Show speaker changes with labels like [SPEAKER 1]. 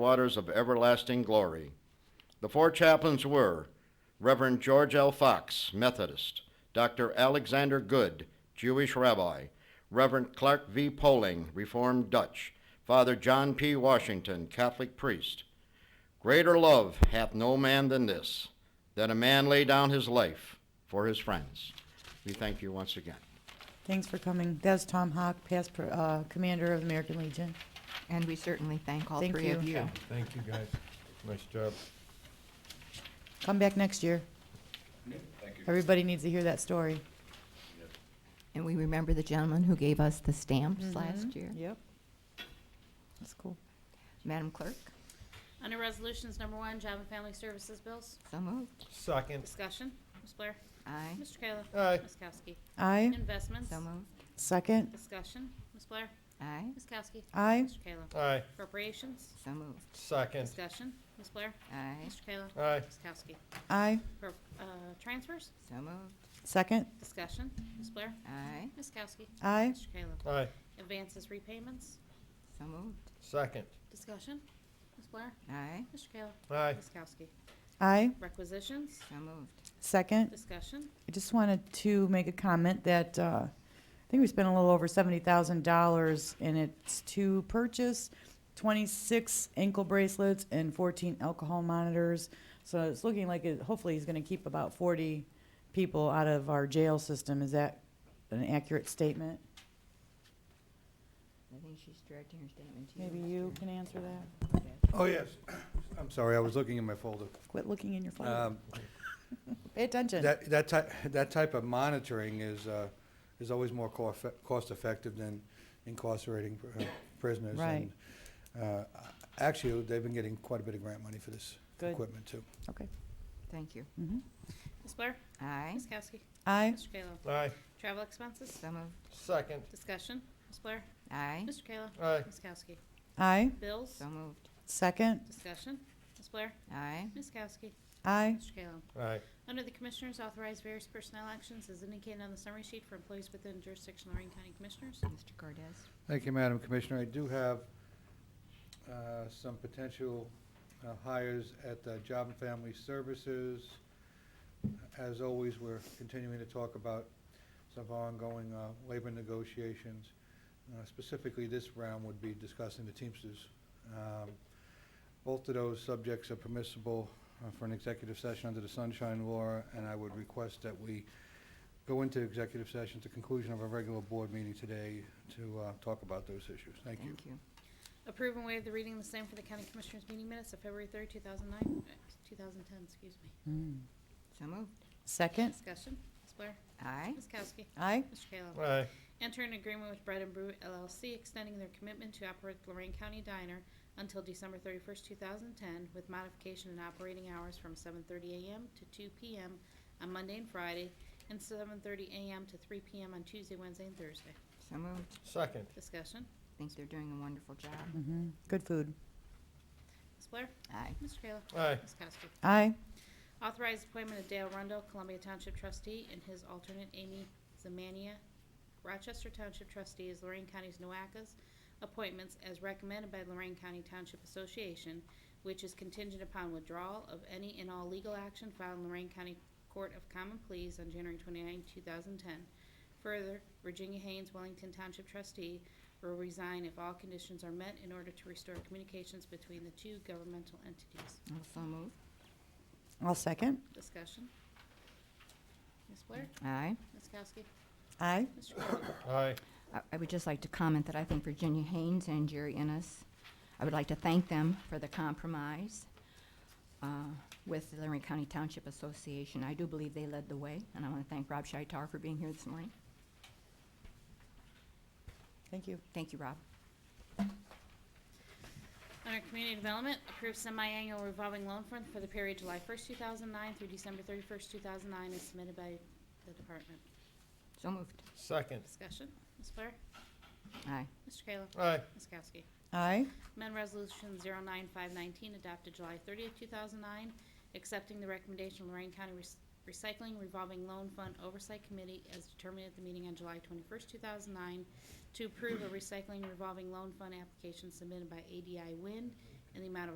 [SPEAKER 1] waters of everlasting glory. The four chaplains were Reverend George L. Fox, Methodist, Dr. Alexander Good, Jewish rabbi, Reverend Clark V. Poling, Reformed Dutch, Father John P. Washington, Catholic priest. Greater love hath no man than this, that a man lay down his life for his friends. We thank you once again.
[SPEAKER 2] Thanks for coming. That's Tom Hawk, past pr- uh, commander of American Legion.
[SPEAKER 3] And we certainly thank all
[SPEAKER 2] Thank
[SPEAKER 3] three of
[SPEAKER 2] you.
[SPEAKER 3] you.
[SPEAKER 4] Thank you, guys. Nice job.
[SPEAKER 2] Come back next year. Everybody needs to hear that story.
[SPEAKER 3] And we remember the gentleman who gave us the
[SPEAKER 2] Mm-hmm.
[SPEAKER 3] stamps last year.
[SPEAKER 2] Hmm? Yep. That's cool.
[SPEAKER 3] Madam Clerk,
[SPEAKER 5] Under Resolutions Number One, Job and Family Services Bills,
[SPEAKER 3] so moved.
[SPEAKER 4] Second.
[SPEAKER 5] discussion, Ms. Blair.
[SPEAKER 3] Aye.
[SPEAKER 5] Mr. Kayla.
[SPEAKER 4] Aye.
[SPEAKER 5] Ms. Kowski.
[SPEAKER 2] Aye.
[SPEAKER 5] Investments,
[SPEAKER 3] So moved.
[SPEAKER 2] Second.
[SPEAKER 5] discussion, Ms. Blair.
[SPEAKER 3] Aye.
[SPEAKER 5] Ms. Kowski.
[SPEAKER 2] Aye.
[SPEAKER 5] Mr. Kayla.
[SPEAKER 4] Aye.
[SPEAKER 5] Appropriations,
[SPEAKER 3] So moved.
[SPEAKER 4] Second.
[SPEAKER 5] discussion, Ms. Blair.
[SPEAKER 3] Aye.
[SPEAKER 5] Mr. Kayla.
[SPEAKER 4] Aye.
[SPEAKER 5] Ms. Kowski.
[SPEAKER 2] Aye.
[SPEAKER 5] Pro- uh, Transfers,
[SPEAKER 3] So moved.
[SPEAKER 2] Second.
[SPEAKER 5] discussion, Ms. Blair.
[SPEAKER 3] Aye.
[SPEAKER 5] Ms. Kowski.
[SPEAKER 2] Aye.
[SPEAKER 5] Mr. Kayla.
[SPEAKER 4] Aye.
[SPEAKER 5] Advances, repayments,
[SPEAKER 3] So moved.
[SPEAKER 4] Second.
[SPEAKER 5] discussion, Ms. Blair.
[SPEAKER 3] Aye.
[SPEAKER 5] Mr. Kayla.
[SPEAKER 4] Aye.
[SPEAKER 5] Ms. Kowski.
[SPEAKER 2] Aye.
[SPEAKER 5] Requisitions,
[SPEAKER 3] So moved.
[SPEAKER 2] Second.
[SPEAKER 5] discussion,
[SPEAKER 2] I just wanted to make a comment that uh, I think we spent a little over $70,000 and it's to purchase 26 ankle bracelets and 14 alcohol monitors. So it's looking like it, hopefully he's going to keep about 40 people out of our jail system. Is that an accurate statement?
[SPEAKER 3] I think she's directing her statement to you.
[SPEAKER 2] Maybe you can answer that.
[SPEAKER 6] Oh, yes. I'm sorry, I was looking in my folder.
[SPEAKER 2] Quit looking in your folder.
[SPEAKER 6] Um,
[SPEAKER 2] Pay attention.
[SPEAKER 6] That, that type, that type of monitoring is, uh, is always more cof- cost-effective than incarcerating pr- uh, prisoners.
[SPEAKER 2] Right.
[SPEAKER 6] And, uh, Actually, they've been getting quite a bit of grant money for this
[SPEAKER 2] Good.
[SPEAKER 6] equipment, too.
[SPEAKER 2] Okay.
[SPEAKER 3] Thank you.
[SPEAKER 2] Mhm.
[SPEAKER 5] Ms. Blair.
[SPEAKER 3] Aye.
[SPEAKER 5] Ms. Kowski.
[SPEAKER 2] Aye.
[SPEAKER 5] Mr. Kayla.
[SPEAKER 4] Aye.
[SPEAKER 5] Travel expenses,
[SPEAKER 3] So moved.
[SPEAKER 4] Second.
[SPEAKER 5] Discussion, Ms. Blair.
[SPEAKER 3] Aye.
[SPEAKER 5] Mr. Kayla.
[SPEAKER 4] Aye.
[SPEAKER 5] Ms. Kowski.
[SPEAKER 2] Aye.
[SPEAKER 5] Bills,
[SPEAKER 3] So moved.
[SPEAKER 2] Second.
[SPEAKER 5] discussion, Ms. Blair.
[SPEAKER 3] Aye.
[SPEAKER 5] Ms. Kowski.
[SPEAKER 2] Aye.
[SPEAKER 5] Mr. Kayla.
[SPEAKER 4] Aye.
[SPEAKER 5] Under the Commissioners, authorize various personnel actions as indicated on the summary sheet for employees within jurisdiction of Lorraine County Commissioners.
[SPEAKER 3] Mr. Cordez.
[SPEAKER 6] Thank you, Madam Commissioner. I do have uh, some potential uh, hires at uh, Job and Family Services. As always, we're continuing to talk about some of our ongoing uh, labor negotiations. Uh, Specifically, this round would be discussing the Teamsters. Um, Both of those subjects are permissible uh, for an executive session under the Sunshine Law, and I would request that we go into executive session at the conclusion of our regular board meeting today to uh, talk about those issues. Thank you.
[SPEAKER 3] Thank you.
[SPEAKER 5] Approve and waive the reading of the same for the County Commissioners meeting minutes of February third, two thousand nine, uh, two thousand ten, excuse me.
[SPEAKER 2] Mm.
[SPEAKER 3] So moved.
[SPEAKER 2] Second.
[SPEAKER 5] Discussion, Ms. Blair.
[SPEAKER 3] Aye.
[SPEAKER 5] Ms. Kowski.
[SPEAKER 2] Aye.
[SPEAKER 5] Mr. Kayla.
[SPEAKER 4] Aye.
[SPEAKER 5] Enter an agreement with Bread and Brew LLC extending their commitment to operate the Lorraine County Diner until December 31st, 2010, with modification in operating hours from 7:30 a.m. to 2 p.m. on Monday and Friday, and 7:30 a.m. to 3 p.m. on Tuesday, Wednesday, and Thursday.
[SPEAKER 3] So moved.
[SPEAKER 4] Second.
[SPEAKER 5] Discussion.
[SPEAKER 3] I think they're doing a wonderful job.
[SPEAKER 2] hmm Good food.
[SPEAKER 5] Ms. Blair?
[SPEAKER 3] Aye.
[SPEAKER 5] Mr. Kayla?
[SPEAKER 4] Aye.
[SPEAKER 5] Ms. Kowski?
[SPEAKER 2] Aye.
[SPEAKER 5] Authorized appointment of Dale Rundle, Columbia Township trustee, and his alternate Amy Zamania, Rochester Township trustee, as Lorraine County's NOACA's appointments as recommended by Lorraine County Township Association, which is contingent upon withdrawal of any and all legal action filed in Lorraine County Court of Common Pleas on January 29, 2010. Further, Virginia Haynes, Wellington Township trustee, will resign if all conditions are met in order to restore communications between the two governmental entities.
[SPEAKER 3] Also moved.
[SPEAKER 2] I'll second.
[SPEAKER 5] Discussion. Ms. Blair?
[SPEAKER 3] Aye.
[SPEAKER 5] Ms. Kowski?
[SPEAKER 2] Aye.
[SPEAKER 5] Mr. Kayla?
[SPEAKER 4] Aye.
[SPEAKER 3] I- I would just like to comment that I think Virginia Haynes and Jerry Ennis, I would like to thank them for the compromise uh, with the Lorraine County Township Association. I do believe they led the way, and I want to thank Rob Shitar for being here this morning.
[SPEAKER 2] Thank you.
[SPEAKER 3] Thank you, Rob.
[SPEAKER 5] Under Community Development, approve semi-annual revolving loan fund for the period July 1st, 2009 through December 31st, 2009, as submitted by the department.
[SPEAKER 3] So moved.
[SPEAKER 4] Second.
[SPEAKER 5] Discussion. Ms. Blair?
[SPEAKER 3] Aye.
[SPEAKER 5] Mr. Kayla?
[SPEAKER 4] Aye.
[SPEAKER 5] Ms. Kowski?
[SPEAKER 2] Aye.
[SPEAKER 5] Amend Resolution 09519, adopted July 30th, 2009, accepting the recommendation of Lorraine County Rec- Recycling Revolving Loan Fund Oversight Committee as determined at the meeting on July 21st, 2009, to approve a recycling revolving loan fund application submitted by ADI Wind in the amount of